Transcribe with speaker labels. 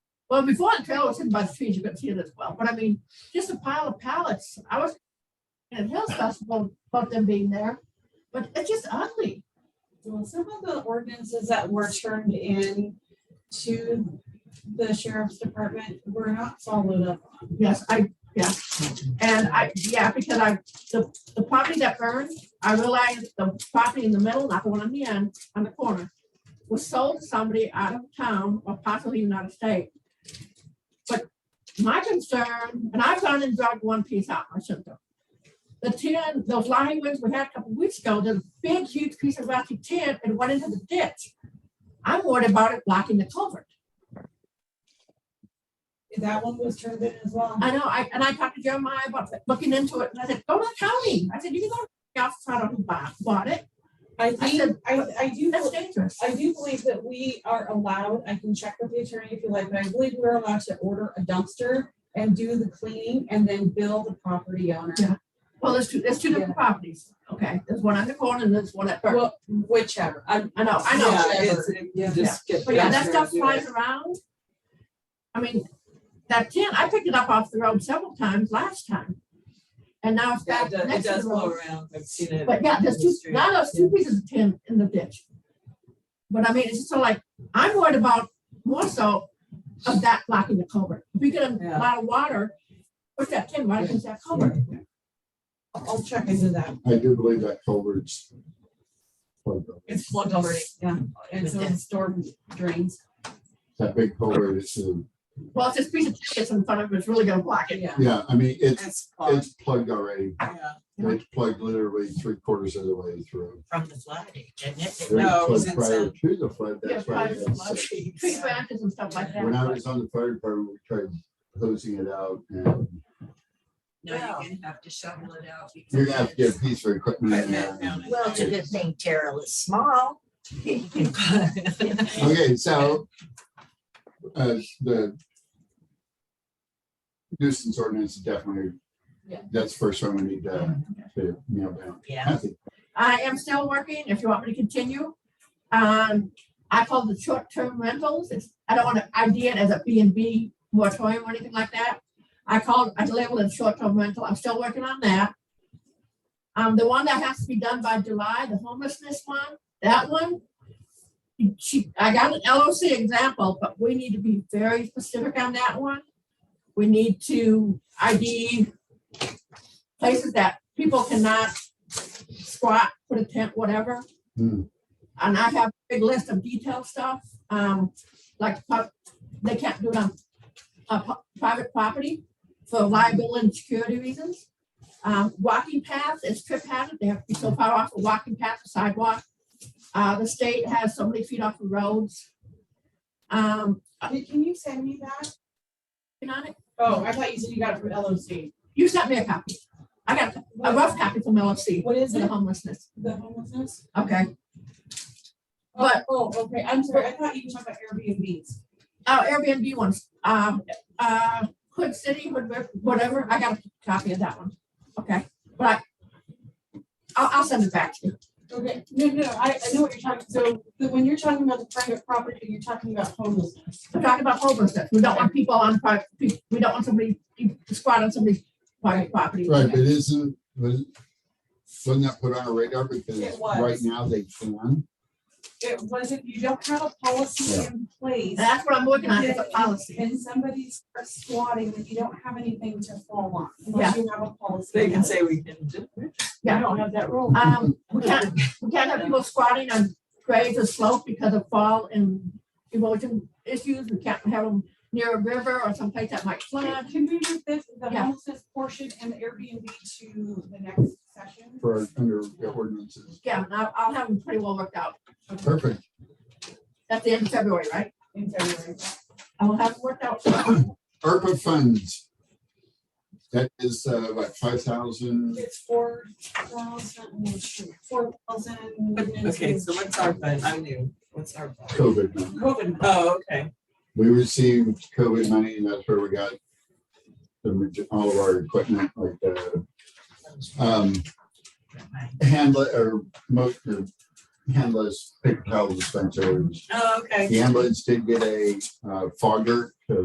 Speaker 1: Well, before the trailer was hidden by the trees, you could see it as well, but I mean, just a pile of pallets. I was at Hills Festival about them being there, but it's just ugly.
Speaker 2: Well, some of the ordinances that were turned in to the sheriff's department were not followed up. on.
Speaker 1: Yes, I, yeah. And I, yeah, because I, the, the property that burned, I realized the property in the middle, not the one on the end, on the corner, was sold to somebody out of town or possibly even out of state. But my concern, and I've gone and dug one piece out, I shouldn't have. The tin, the flying ones we had a couple weeks ago, there's a big, huge piece of rusty tin and went into the ditch. I'm worried about it blocking the culvert.
Speaker 2: That one was turned in as well.
Speaker 1: I know, I, and I talked to Jeremiah about looking into it, and I said, go to the county, I said, you can go to the office, I don't bought, bought it,
Speaker 2: I think, I, I do,
Speaker 1: that's dangerous.
Speaker 2: I do believe that we are allowed, I can check with the attorney if you like, but I believe we're allowed to order a dumpster and do the cleaning and then bill the property owner.
Speaker 1: Yeah. Well, there's two, there's two different properties, okay, there's one on the corner and there's one at Burke,
Speaker 2: Well, whichever. I,
Speaker 1: I know, I know,
Speaker 2: Yeah.
Speaker 3: it's- it- you just get
Speaker 1: but yeah,
Speaker 3: down
Speaker 1: that
Speaker 3: there
Speaker 1: stuff
Speaker 3: and do
Speaker 1: flies
Speaker 3: it.
Speaker 1: around. I mean, that tin, I picked it up off the road several times last time, and now it's
Speaker 3: Yeah,
Speaker 1: back
Speaker 3: It does- it
Speaker 1: next to
Speaker 3: does
Speaker 1: the
Speaker 3: blow
Speaker 1: road.
Speaker 3: around. I've seen it.
Speaker 1: But yeah, there's
Speaker 3: in the
Speaker 1: two,
Speaker 3: street.
Speaker 1: now there's two pieces of tin in the ditch. But I mean, it's just so like, I'm worried about more so of that blocking the culvert. If we get a
Speaker 3: Yeah.
Speaker 1: lot of water, put that tin right against that culvert.
Speaker 2: I'll check into that.
Speaker 4: I do believe that culvert's.
Speaker 2: It's plugged already, yeah. And so it's storm drains.
Speaker 4: That big culvert is, um,
Speaker 1: Well, if this piece of tin gets in front of it, it's really gonna block it.
Speaker 2: Yeah.
Speaker 4: yeah, I mean, it's,
Speaker 3: It's far
Speaker 4: it's plugged already. It's plugged literally three quarters of the way through.
Speaker 5: from the flood agent, isn't it?
Speaker 3: No, it was
Speaker 4: Plugged Prior
Speaker 3: inside.
Speaker 4: to the flood, that's
Speaker 1: Yeah,
Speaker 4: why.
Speaker 1: prior to
Speaker 4: they
Speaker 1: the
Speaker 4: had
Speaker 1: flood.
Speaker 4: such-
Speaker 1: Tree branches and stuff like
Speaker 4: When I
Speaker 1: that.
Speaker 4: was on the fire department, we tried hosing it out and
Speaker 5: No, you're gonna have to shovel it out. because
Speaker 4: you're gonna have to get a piece of equipment in there.
Speaker 5: Well, it's a good thing Terrell is small.
Speaker 4: Okay, so uh, the nuisance ordinance is definitely,
Speaker 2: Yeah.
Speaker 4: that's the first one we need to, to nail down.
Speaker 5: Yeah,
Speaker 4: I think
Speaker 1: I am still working, if you want me to continue. Um, I call the short-term rentals, it's, I don't wanna, I did as a B and B moratorium or anything like that. I called, I labeled it short-term rental, I'm still working on that. Um, the one that has to be done by July, the homelessness one, that one. She, I got an LOC example, but we need to be very specific on that one. We need to ID places that people cannot squat, put a tent, whatever.
Speaker 4: Hmm.
Speaker 1: And I have a big list of detailed stuff, um, like, pub- they can't do it on, uh, pu- private property for liability and security reasons. Um, walking paths, it's trip hazard, they have to be so far off the walking path, the sidewalk. Uh, the state has so many feet off the roads. Um,
Speaker 2: Can can you send me that?
Speaker 1: you know,
Speaker 2: Oh, I thought you said you got it from LOC.
Speaker 1: you sent me a copy. I got a rough copy from LFC,
Speaker 2: What is
Speaker 1: the
Speaker 2: it?
Speaker 1: homelessness,
Speaker 2: The homelessness?
Speaker 1: okay? But-
Speaker 2: Oh, okay, I'm sorry, I thought you were talking about Airbnbs.
Speaker 1: uh, Airbnb ones, um, uh, Hood City, Hood, River, whatever, I got a copy of that one, okay, but I. I'll, I'll send it back to you,
Speaker 2: Okay, no, no, I, I know what you're talking, so the- when you're talking about the private property, you're talking about homelessness.
Speaker 1: we're talking about homelessness, we don't want people on private, we don't want somebody to squat on somebody's private property.
Speaker 4: Right, but isn't, was, wasn't that put on a radar because
Speaker 2: It was.
Speaker 4: right now they can?
Speaker 2: It wasn't, you don't have a policy in place,
Speaker 1: And that's what I'm working on, is a policy,
Speaker 2: and somebody starts squatting, then you don't have anything to fall on,
Speaker 1: Yeah.
Speaker 2: unless you have a policy.
Speaker 3: They can say we can do it.
Speaker 2: I don't have that rule.
Speaker 1: um, we can't, we can't have people squatting on graves or slopes because of fall and erosion issues, we can't have them near a river or someplace that might flood.
Speaker 2: Can we move this, the
Speaker 1: Yeah.
Speaker 2: homelessness portion and the Airbnb to the next session?
Speaker 4: for under the ordinances.
Speaker 1: Yeah, and I'll, I'll have them pretty well worked out,
Speaker 4: Perfect.
Speaker 1: that's the end of February, right?
Speaker 2: In February.
Speaker 1: I will have it worked out.
Speaker 4: ARPA funds. That is uh, like five thousand,
Speaker 2: It's four thousand, four thousand.
Speaker 3: Okay, so what's our fund? I'm new. What's our? fund?
Speaker 4: COVID money.
Speaker 3: COVID. Oh, okay.
Speaker 4: We received COVID money and that's where we got the maj- all of our equipment like the um, handle or most of the handless paper towel dispensers.
Speaker 3: Oh, okay.
Speaker 4: The ambulance did get a uh, fogger to